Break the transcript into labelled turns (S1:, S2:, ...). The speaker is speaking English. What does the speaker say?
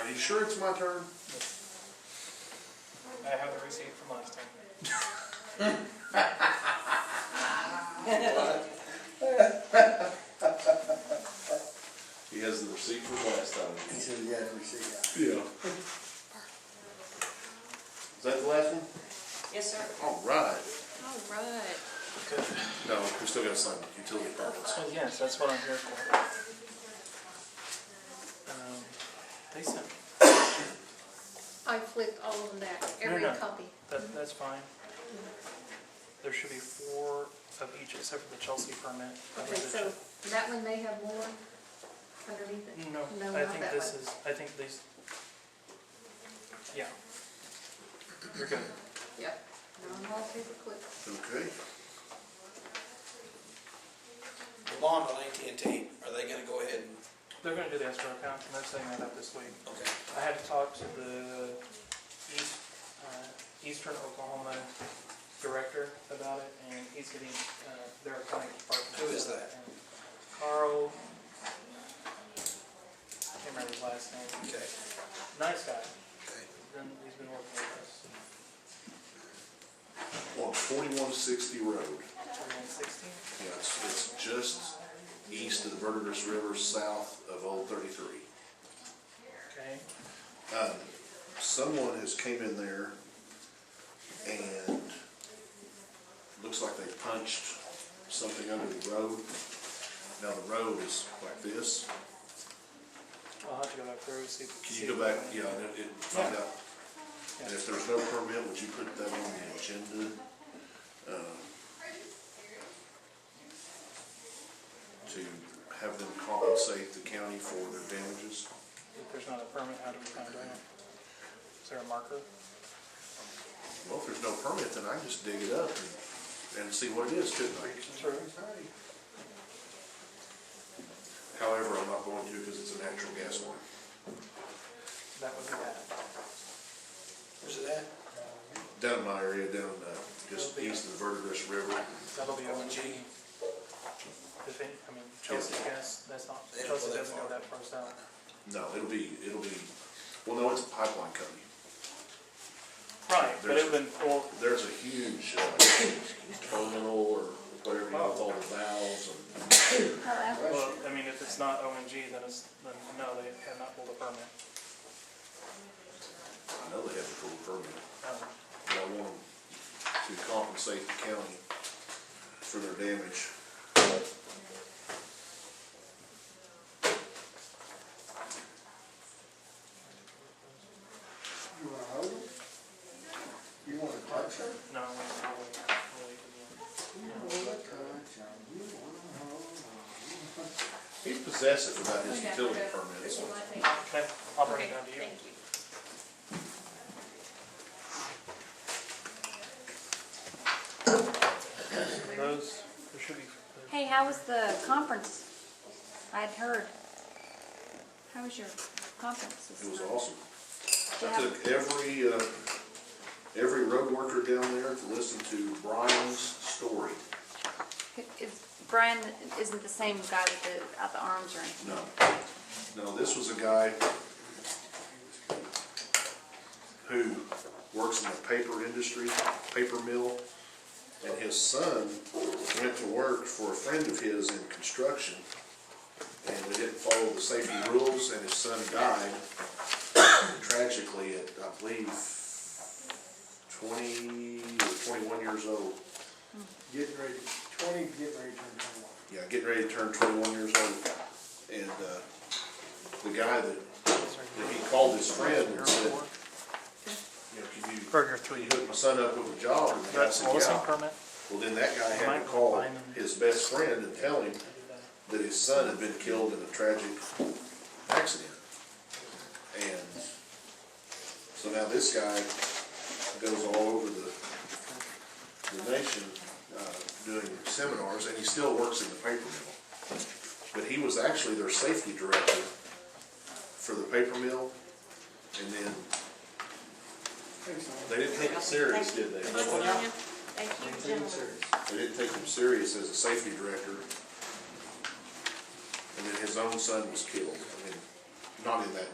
S1: Are you sure it's my turn?
S2: I have the receipt from last time.
S1: He has the receipt from last time.
S3: He said he had received that.
S1: Yeah. Is that the last one?
S4: Yes, sir.
S1: All right.
S4: All right.
S1: No, we still gotta sign the utility permits.
S2: So yes, that's what I'm here for. Um, They sent,
S5: I flipped all of them back, every
S2: no.
S5: copy.
S2: that, that's fine. There should be four of each except for the Chelsea permit. That
S5: Okay,
S2: was the
S5: so that one may have more underneath
S2: Chel-
S5: it.
S2: No,
S5: No,
S2: I
S5: not
S2: think
S5: that
S2: this
S5: one.
S2: is, I think these. Yeah. You're good.
S5: Yep, non-wallpaper clip.
S1: Okay.
S6: The bond on AT&T, are they gonna go ahead and,
S2: They're gonna do the escrow account and they're setting that up this week.
S6: okay,
S2: I had to talk to the East, uh, Eastern Oklahoma director about it, and he's getting, uh, their county department.
S6: Who is that?
S2: Carl, I can't remember his last name,
S6: okay,
S2: nice guy,
S6: okay.
S2: Been- he's been working with us,
S1: On forty-one sixty road.
S2: twenty sixteen.
S1: Yeah, it's, it's just east of the Verdigris River, south of Old Thirty-three. Um,
S2: Okay,
S1: Someone has came in there and looks like they punched something under the road. Now the road is like this.
S2: I'll have to go back through and see.
S1: Can you go back, yeah, and it, it, find out. And if there's no permit, would you put that on the agenda? um, To have them compensate the county for their damages?
S2: If there's not a permit, how do we find out? Is there a marker?
S1: Well, if there's no permit, then I can just dig it up and- and see what it is, couldn't I?
S2: True.
S1: However, I'm not going to because it's a natural gas line.
S2: That would be bad.
S6: Where's it at?
S1: Down in my area, down, uh, just east of the Verdigris River.
S2: That'll be on
S6: ONG.
S2: G. If any, I mean, Chelsea gas, that's not,
S6: They don't go
S2: Chelsea
S6: that
S2: doesn't go
S6: far.
S2: that far south.
S1: No, it'll be, it'll be, well, no, it's a pipeline company.
S2: Right, but
S1: There's-
S2: it would been four,
S1: There's a huge uh, terminal or whatever, you know, with all the valves and,
S2: well, I mean, if it's not ONG, then it's, then no, they have not pulled a permit.
S1: I know they have a full permit.
S2: Um,
S1: But I want them to compensate the county for their damage.
S3: You wanna hold them? You wanna touch them?
S2: No, we- we'll wait,
S3: You wanna touch them? You wanna hold them?
S1: He's possessive about his
S5: Okay,
S1: utility
S5: okay.
S1: permits.
S5: Well, I think-
S2: we'll wait. Okay, I'll bring
S5: Okay,
S2: it down to you.
S5: thank you.
S2: Those, there should be, there's-
S7: Hey, how was the conference? I'd heard. How was your conference? this
S1: It was
S7: time?
S1: awesome. I
S7: Yeah.
S1: took every, uh, every road worker down there to listen to Brian's story.
S7: Is- Brian isn't the same guy with the, out the arms or anything.
S1: No, no, this was a guy who works in the paper industry, paper mill, and his son went to work for a friend of his in construction, and they didn't follow the safety rules, and his son died tragically at, I believe, twenty or twenty-one years old.
S3: Getting ready, twenty, getting ready to turn twenty-one.
S1: Yeah, getting ready to turn twenty-one years old, and, uh, the guy that And he called his friend and said, you know, can you,
S2: Burger
S1: can you hook my son up with a job? And the guy
S2: That's
S1: said,
S2: listing
S1: yeah.
S2: permit?
S1: Well, then that guy had to call his best friend and tell him that his son had been killed in a tragic accident. And so now this guy goes all over the, the nation, uh, doing seminars, and he still works in the paper mill. But he was actually their safety director for the paper mill, and then,
S3: Thanks, man.
S1: they didn't take it serious, did they?
S4: Both of you. Thank you, gentlemen.
S1: They didn't take him serious as a safety director. And then his own son was killed, I mean, not in that